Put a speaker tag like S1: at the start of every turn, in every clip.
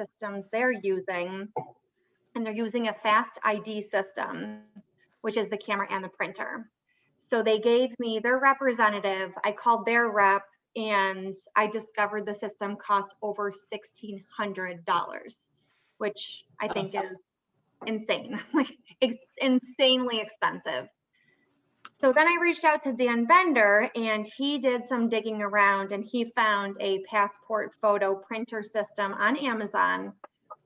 S1: systems they're using. And they're using a fast ID system, which is the camera and the printer. So they gave me their representative. I called their rep and I discovered the system cost over $1,600, which I think is insane, like ex- insanely expensive. So then I reached out to Dan Bender and he did some digging around and he found a passport photo printer system on Amazon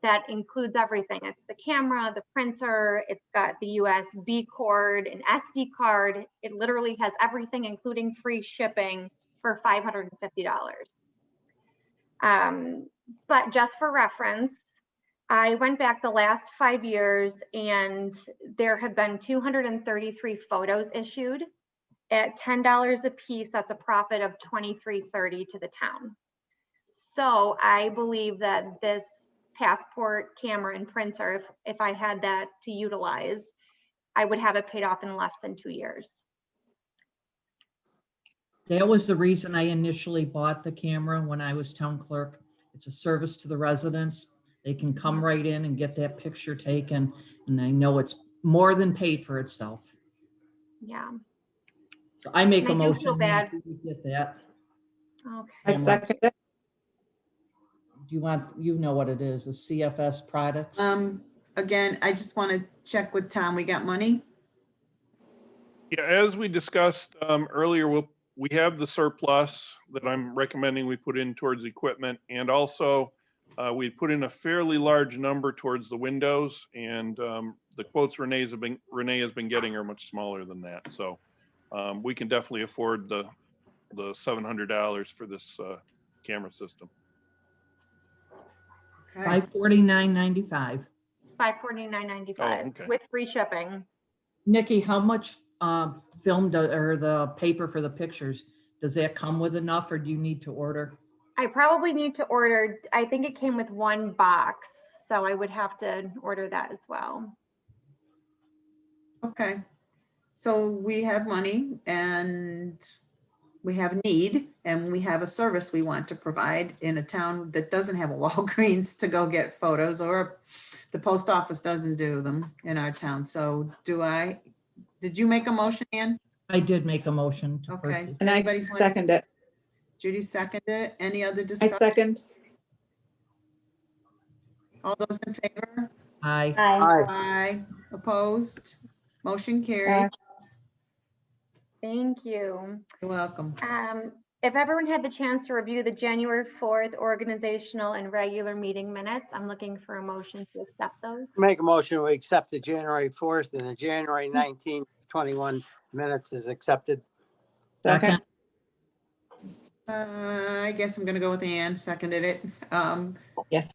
S1: that includes everything. It's the camera, the printer, it's got the USB cord, an SD card. It literally has everything, including free shipping for $550. Um, but just for reference, I went back the last five years and there have been 233 photos issued at $10 a piece. That's a profit of 2330 to the town. So I believe that this passport camera and printer, if, if I had that to utilize, I would have it paid off in less than two years.
S2: That was the reason I initially bought the camera when I was town clerk. It's a service to the residents. They can come
S1: Mm-hmm.
S2: right in and get that picture taken, and I know it's more than paid for itself.
S1: Yeah.
S2: So I make a
S1: And I do
S2: motion.
S1: feel bad.
S2: that we Get that.
S1: Okay.
S3: I
S2: Camera.
S3: second it.
S2: Do you want, you know what it is, a CFS product?
S4: Um, again, I just want to check with Tom. We got money?
S5: Yeah, as we discussed um, earlier, we'll, we have the surplus that I'm recommending we put in towards equipment. And also, uh, we put in a fairly large number towards the windows and um, the quotes Renee's have been, Renee has been getting are much smaller than that. So um, we can definitely afford the, the $700 for this uh, camera system.
S4: Okay.
S2: Five forty-nine ninety-five.
S1: Five forty-nine ninety-five
S5: okay.
S1: with free shipping.
S2: Nikki, how much um, film, do- or the paper for the pictures, does that come with enough, or do you need to order?
S1: I probably need to order, I think it came with one box, so I would have to order that as well.
S4: Okay. So we have money and we have need and we have a service we want to provide in a town that doesn't have a Walgreens to go get photos or the post office doesn't do them in our town. So do I, did you make a motion, Ann?
S2: I did make a motion to
S4: Okay.
S2: purchase.
S3: And I
S4: Anybody want-
S3: second it.
S4: Judy seconded it. Any other
S3: I
S4: discussion?
S3: second.
S4: All those in favor?
S2: I,
S4: Aye. Opposed? Motion
S3: Aye.
S4: carried.
S1: Thank you.
S4: You're welcome.
S1: Um, if everyone had the chance to review the January fourth organizational and regular meeting minutes, I'm looking for a motion to accept those.
S6: Make a motion, we accept the January 4th and the January 19th, 21 minutes is accepted.
S2: second,
S3: Second.
S4: Uh, I guess I'm gonna go with Ann, seconded it. Um,
S3: Yes.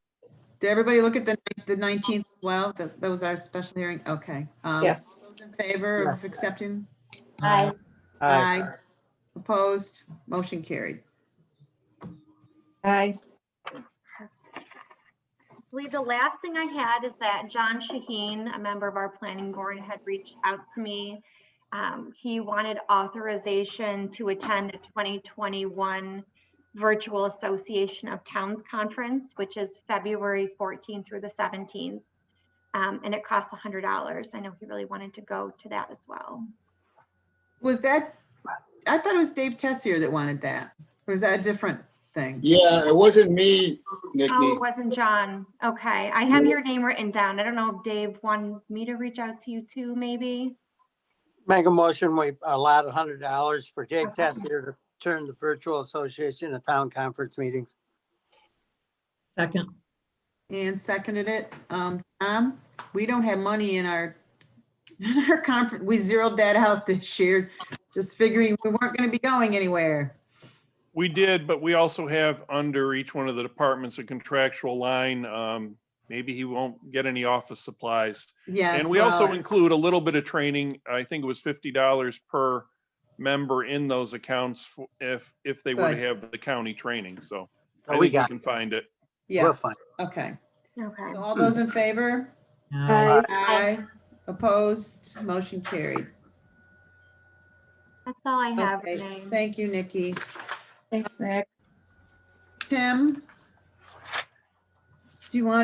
S4: did everybody look at the, ni- the nineteenth as well? That, that was our special hearing, okay. Um,
S3: Yes.
S4: Those in favor of accepting?
S2: Aye.
S6: Aye.
S4: Opposed, motion carried.
S3: Aye.
S1: I believe the last thing I had is that John Shaheen, a member of our planning board, had reached out to me. Um, he wanted authorization to attend the twenty twenty-one Virtual Association of Towns Conference, which is February fourteenth through the seventeenth. Um, and it costs hundred dollars. I know he really wanted to go to that as well.
S4: Was that, I thought it was Dave Tessier that wanted that, or is that a different thing?
S7: Yeah, it wasn't me,
S1: Oh,
S7: Nikki.
S1: it wasn't John. Okay, I have your name written down. I don't know if Dave wanted me to reach out to you too, maybe?
S6: Make a motion, we allowed $100 for Dave Tessier to turn the Virtual Association of Town Conference Meetings.
S2: second.
S4: Ann seconded it. Um, Tom, we don't have money in our, in our conference, we zeroed that out this year, just figuring we weren't gonna be going anywhere.
S5: We did, but we also have under each one of the departments a contractual line. Um, Maybe he won't get any office supplies.
S4: Yes. uh,
S5: And we also
S4: well-
S5: include a little bit of training. I think it was fifty dollars per member in those accounts f- if, if they were to
S4: Good.
S5: have the county training. So I
S6: Oh,
S5: think
S6: We
S5: we
S6: got,
S5: can find it.
S6: we're
S4: Yeah,
S6: fine.
S4: okay.
S1: Okay.
S4: So all those in favor?
S2: Aye.
S3: Aye.
S4: Aye. Opposed? Motion carried.
S1: That's all I have,
S4: Okay,
S1: Renee.
S4: thank you, Nikki.
S3: Thanks, Nick.
S4: Tim? Do you want